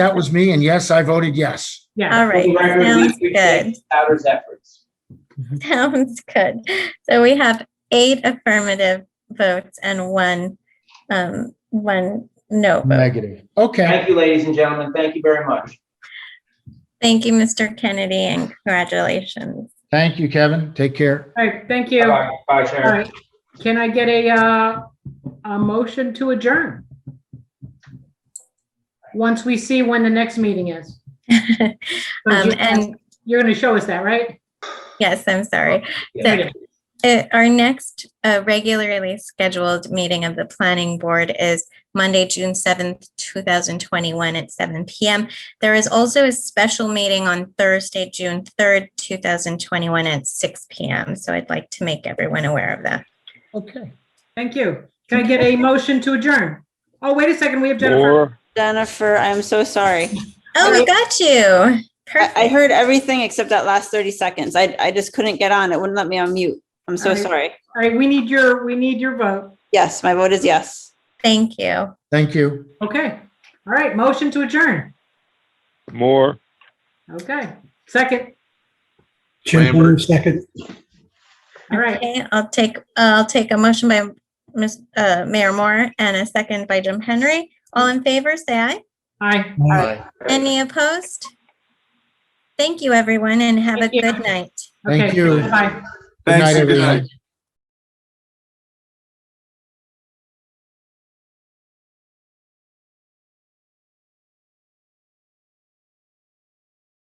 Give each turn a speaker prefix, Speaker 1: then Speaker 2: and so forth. Speaker 1: That was me, and yes, I voted yes.
Speaker 2: Yeah.
Speaker 3: All right,
Speaker 4: For the record, we
Speaker 3: sounds
Speaker 4: appreciate
Speaker 3: good.
Speaker 4: Crowder's efforts.
Speaker 3: Sounds good. So we have eight affirmative votes and one, um, one no vote.
Speaker 5: Negative.
Speaker 1: Okay,
Speaker 4: Thank you, ladies and gentlemen. Thank you very much.
Speaker 3: Thank you, Mr. Kennedy, and congratulations.
Speaker 5: Thank you, Kevin.
Speaker 1: take care.
Speaker 2: All right, thank you. All
Speaker 4: Bye, Bye, Sharon.
Speaker 2: right. Can I get a, uh, a motion to adjourn? Once we see when the next meeting is.
Speaker 3: Um,
Speaker 2: So you-
Speaker 3: and
Speaker 2: You're going to show us that, right?
Speaker 3: yes, I'm
Speaker 6: Oh,
Speaker 3: sorry.
Speaker 4: Yeah.
Speaker 3: So uh, our next uh, regularly scheduled meeting of the planning board is Monday, June seventh, two thousand twenty-one at seven PM. There is also a special meeting on Thursday, June third, two thousand twenty-one at six PM. So I'd like to make everyone aware of that.
Speaker 1: Okay.
Speaker 2: Thank you. Can I get a motion to adjourn? Oh, wait a second, we have Jennifer.
Speaker 7: Or,
Speaker 6: Jennifer, I'm so sorry.
Speaker 3: Oh, we got you.
Speaker 6: I, I
Speaker 3: Perfect.
Speaker 6: heard everything except that last 30 seconds. I, I just couldn't get on. It wouldn't let me unmute. I'm so
Speaker 2: All right.
Speaker 6: sorry.
Speaker 2: All right, we need your, we need your vote.
Speaker 6: Yes, my vote is yes.
Speaker 3: Thank you.
Speaker 1: Thank you.
Speaker 2: Okay. All right, motion to adjourn.
Speaker 7: more.
Speaker 2: Okay. Second.
Speaker 8: Jim Blue, second.
Speaker 2: All right.
Speaker 3: Okay, I'll take, uh, I'll take a motion by Ms., uh, Mayor Moore and a second by Jim Henry. All in favor, say aye.
Speaker 2: Aye.
Speaker 3: Any opposed? Thank you, everyone, and have a
Speaker 2: Thank you.
Speaker 3: good night.
Speaker 1: Thank
Speaker 2: Okay.
Speaker 1: you.
Speaker 2: Bye.
Speaker 1: Good night,
Speaker 8: Thanks, and good
Speaker 1: everyone.
Speaker 8: night.